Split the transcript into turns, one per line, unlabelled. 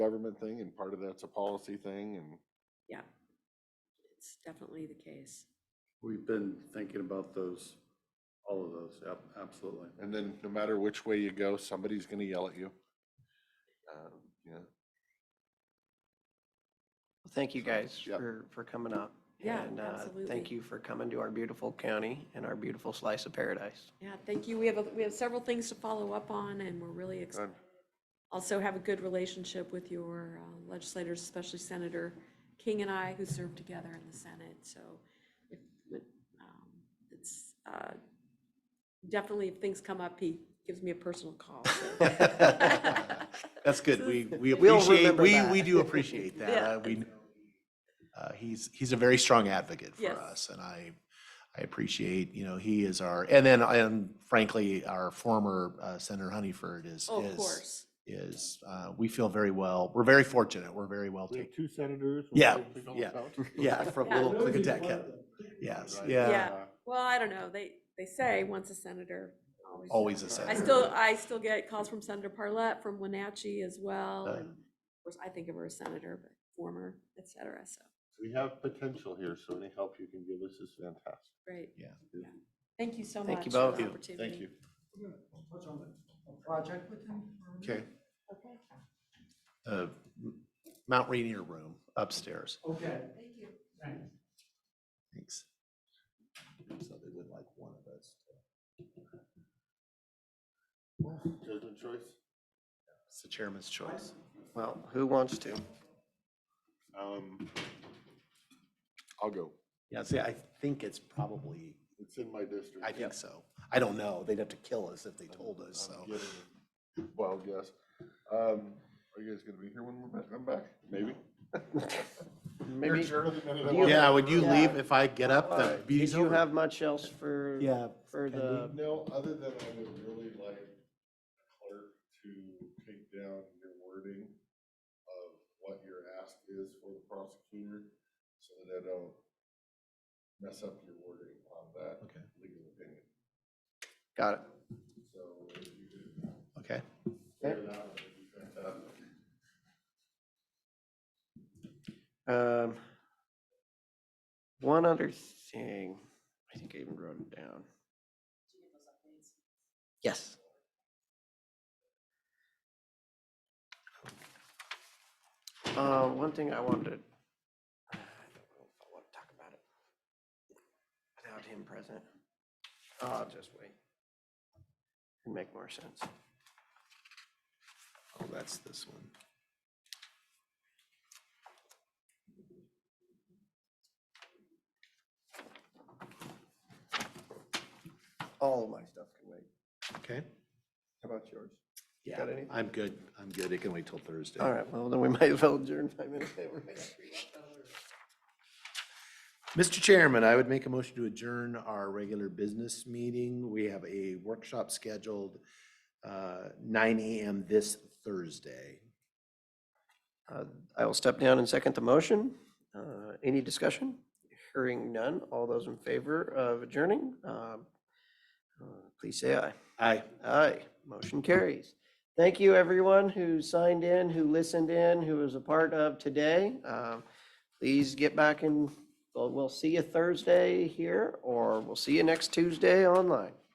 government thing and part of that's a policy thing and
Yeah. It's definitely the case.
We've been thinking about those, all of those, yep, absolutely.
And then no matter which way you go, somebody's gonna yell at you. Um, You know,
Well, Thank you
So,
guys
yep.
for, for coming up.
Yeah,
and, uh,
absolutely.
Thank you for coming to our beautiful county and our beautiful slice of paradise.
Yeah, thank you. We have, a- we have several things to follow up on and we're really
Uh.
excited.
Good.
Also have a good relationship with your uh, legislators, especially Senator King and I, who served together in the Senate. So if, but, um, it's, uh, definitely if things come up, he gives me a personal call. so.
That's good. We, we
We'll
appreciate,
remember
we,
that.
we do appreciate that.
Yeah.
Uh, We, uh, he's, he's a very strong advocate for
Yes.
us and I, I appreciate, you know, he is our, and then, and frankly, our former uh, Senator Honeyford is,
Oh, Of
is,
course.
is, uh, we feel very well, we're very fortunate. We're very well
We
taken.
have two senators. and
Yeah,
one from
yeah.
South.
Yeah, from
Yeah.
Little Clickatack County. Yes, yeah,
Yeah. Well, I don't know. They, they say once a senator, always.
always a
I
senator.
still, I still get calls from Senator Parlett, from Wenatchee as well,
Uh.
and of course, I think of her as senator, but former, et cetera, so,
We have potential here, so any help you can give us is fantastic.
great.
Yeah.
Thank you so much.
Thank you
for
both.
the
Thank you.
opportunity.
thank you.
Okay. Okay. Mount Rainier Room upstairs. Okay. Thank you. Thanks. So they would like one of us.
Judgment choice?
It's the chairman's choice.
Well, who wants to?
Um, I'll go.
Yeah, see, I think it's probably,
It's in my district.
I think so. I don't know. They'd have to kill us if they told us,
I'm
so.
getting a Wild guess. Um, are you guys gonna be here when we're back, I'm back? Maybe. You're
Maybe,
sure the minute I
do you
walk
Yeah,
out
would you
Yeah.
leave if I get up?
uh,
The
did
meeting's
you
over.
have much else for?
Yeah.
For
Can
the,
the- No, other than I would really like clerk to take down your wording of what your ask is for the prosecutor, so that I don't mess up your wording on that
Okay,
legal opinion.
got it.
So if you could
okay.
clear that, up, it'd be fantastic.
Um, One other thing, I think I even wrote it down. Yes. Uh, one thing I wanted to, I don't know if I want to talk about it without him present. I'll just wait. It'd Make more sense.
Oh, that's this one.
All of my stuff can wait.
Okay.
How about yours?
Yeah,
Got anything?
I'm good. I'm good. It can wait till Thursday.
All right, well, then we might as well adjourn five minutes.
Mr. Chairman, I would make a motion to adjourn our regular business meeting. We have a workshop scheduled uh, nine AM this Thursday.
Uh, I will step down and second the motion. Uh, Any discussion? Hearing none. All those in favor of adjourning, um, uh, please say aye.
Aye.
Aye. Motion carries. Thank you, everyone who signed in, who listened in, who was a part of today. Um, Please get back and, well, we'll see you Thursday here, or we'll see you next Tuesday online.